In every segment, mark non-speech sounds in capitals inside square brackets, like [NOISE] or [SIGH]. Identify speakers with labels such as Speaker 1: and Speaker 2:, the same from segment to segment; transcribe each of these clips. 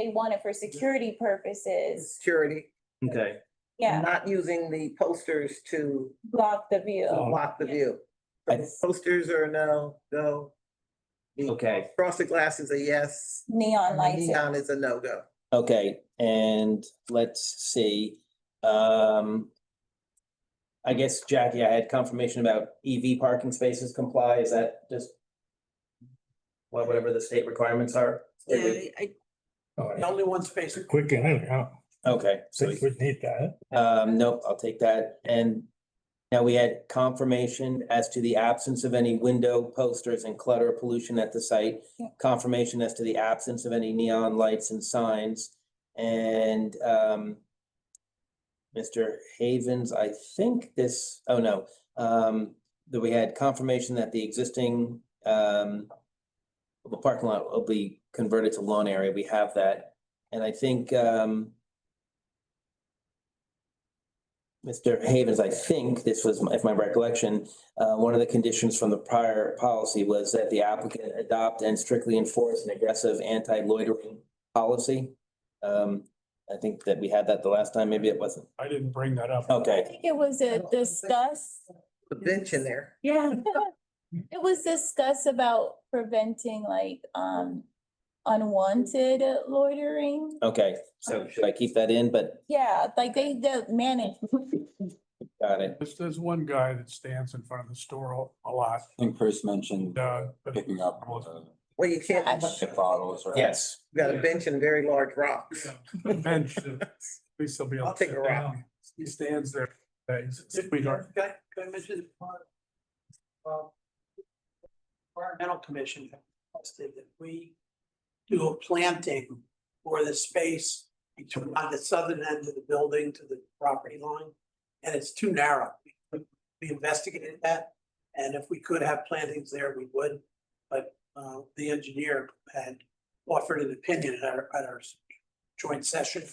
Speaker 1: they want it for security purposes,
Speaker 2: security.
Speaker 3: Okay,
Speaker 1: yeah,
Speaker 2: Not using the posters to
Speaker 1: block the view.
Speaker 3: Oh.
Speaker 2: block the
Speaker 1: yeah.
Speaker 2: view.
Speaker 3: I-
Speaker 2: Posters are no, no. The
Speaker 3: Okay.
Speaker 2: Frosted glass is a yes.
Speaker 1: Neon
Speaker 2: and the
Speaker 1: lights,
Speaker 2: Neon is a no-go.
Speaker 3: okay, and let's see, um. I guess Jackie, I had confirmation about EV parking spaces comply, is that just? Well, whatever the state requirements are?
Speaker 4: Yeah, I,
Speaker 5: Only one space. Quick and, easy, huh?
Speaker 3: Okay,
Speaker 5: So
Speaker 3: so,
Speaker 5: you would need that.
Speaker 3: um, nope, I'll take that, and. Now we had confirmation as to the absence of any window posters and clutter pollution at the site.
Speaker 1: Yeah.
Speaker 3: Confirmation as to the absence of any neon lights and signs and um. Mr. Havens, I think this, oh no, um, that we had confirmation that the existing um. The parking lot will be converted to lawn area. We have that. And I think um. Mr. Havens, I think this was, my- if my recollection, uh, one of the conditions from the prior policy was that the applicant adopt and strictly enforce an aggressive anti-loitering policy. Um, I think that we had that the last time, maybe it wasn't.
Speaker 5: I didn't bring that up.
Speaker 1: I
Speaker 3: Okay,
Speaker 1: think it was
Speaker 2: I
Speaker 1: a
Speaker 2: don't think-
Speaker 1: discuss,
Speaker 2: The bench in there.
Speaker 4: yeah,
Speaker 1: it was discuss about preventing like, um, unwanted loitering.
Speaker 3: okay, so should I keep that in, but
Speaker 1: Yeah, like they, they manage,
Speaker 3: got it,
Speaker 5: There's, there's one guy that stands in front of the store a lot,
Speaker 6: I think Chris mentioned
Speaker 5: uh, but
Speaker 6: picking up uh,
Speaker 2: Well, you can't,
Speaker 1: Gosh.
Speaker 2: you
Speaker 6: tip bottles or.
Speaker 3: yes.
Speaker 2: got a bench and very large rocks.
Speaker 5: the bench, at least he'll be able
Speaker 2: I'll
Speaker 5: to
Speaker 2: take
Speaker 5: sit
Speaker 2: a rock.
Speaker 5: down. He stands there. uh, he's a Sweetheart.
Speaker 7: Can I mention? Environmental Commission have requested that we do a planting for the space between on the southern end of the building to the property line. And it's too narrow. We- We investigated that, and if we could have plantings there, we would. But uh, the engineer had offered an opinion at our, at our joint session.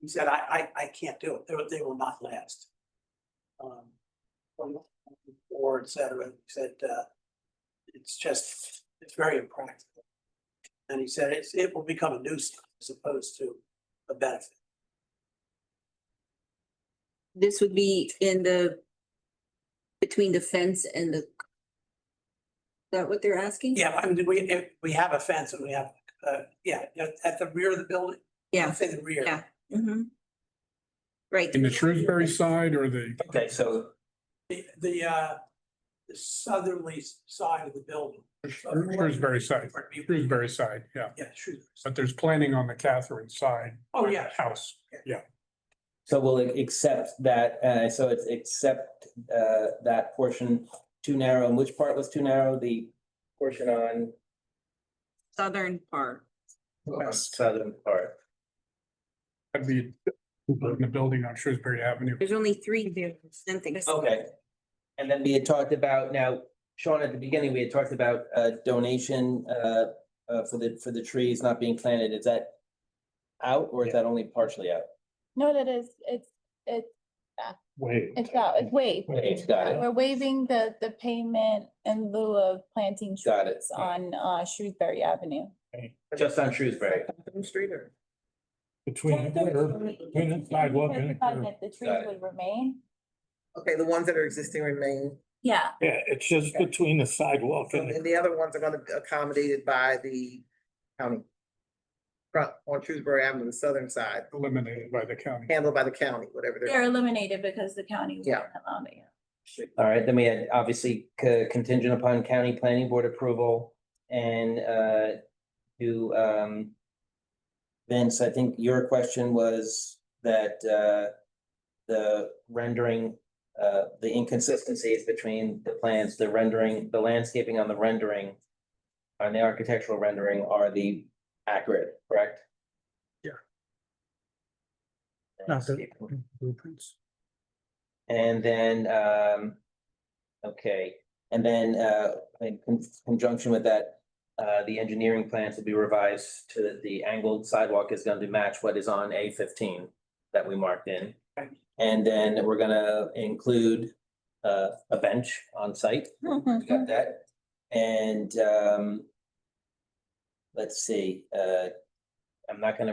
Speaker 7: He said, I, I, I can't do it. They, will- they will not last um, or et cetera, he said, uh, it's just, it's very impractical. And he said, it's, it will become a nuisance as opposed to a benefit.
Speaker 4: this would be in the, between the fence and the. Is that what they're asking?
Speaker 7: Yeah, I mean, we, if we have a fence and we have, uh, yeah, at- at the rear of the building.
Speaker 4: Yeah.
Speaker 7: Say the rear.
Speaker 4: Yeah. Mhm. Right,
Speaker 5: In the Shrewsbury side or the?
Speaker 3: Okay, so
Speaker 7: The, the, uh, the southerly side of the building.
Speaker 5: Shrewsbury side, Shrewsbury side, yeah.
Speaker 7: Yeah, Shrewsbury.
Speaker 5: But there's planning on the Catherine side.
Speaker 7: Oh,
Speaker 5: by the
Speaker 7: yeah.
Speaker 5: House.
Speaker 3: So we'll accept that, uh, so it's accept, uh, that portion too narrow, and which part was too narrow, the portion on
Speaker 4: southern part.
Speaker 3: on southern part.
Speaker 5: That'd be in the building on Shrewsbury Avenue.
Speaker 4: There's only three buildings, something.
Speaker 3: Okay. And then we had talked about, now, Sean, at the beginning, we had talked about, uh, donation, uh, uh, for the, for the trees not being planted, is that out, or is that only partially out?
Speaker 1: no, that is, it's, it's,
Speaker 5: Wait.
Speaker 1: it's out, it's waved.
Speaker 3: Wait, got it,
Speaker 1: We're waiving the, the payment in lieu of planting
Speaker 3: Got it.
Speaker 1: trees on, uh, Shrewsbury Avenue.
Speaker 3: just on Shrewsbury,
Speaker 2: Catherine Street or?
Speaker 5: Between. the sidewalk and the curb.
Speaker 1: That the trees
Speaker 3: Got it.
Speaker 1: would remain?
Speaker 2: Okay, the ones that are existing remain,
Speaker 1: Yeah.
Speaker 8: Yeah, it's just between the sidewalk and the
Speaker 2: and the other ones are gonna be accommodated by the county. Front on Shrewsbury Avenue, the southern side,
Speaker 5: Eliminated by the county.
Speaker 2: handled by the county, whatever they're.
Speaker 1: They're eliminated because the county.
Speaker 2: Yeah.
Speaker 1: wouldn't allow it.
Speaker 3: all right, then we had obviously co- contingent upon county planning board approval and, uh, to, um, Vince, I think your question was that, uh, the rendering, uh, the inconsistencies between the plans, the rendering, the landscaping on the rendering and the architectural rendering are the accurate, correct?
Speaker 5: Yeah.
Speaker 3: Landscaping.
Speaker 5: Blueprints.
Speaker 3: And then, um, okay, and then, uh, in con- conjunction with that, uh, the engineering plans will be revised to that the angled sidewalk is going to match what is on A fifteen that we marked in.
Speaker 7: Right.
Speaker 3: And then we're gonna include, uh, a bench on site. [LAUGHS] We
Speaker 1: Mm-hmm.
Speaker 3: got that. And, um, let's see, uh, I'm not gonna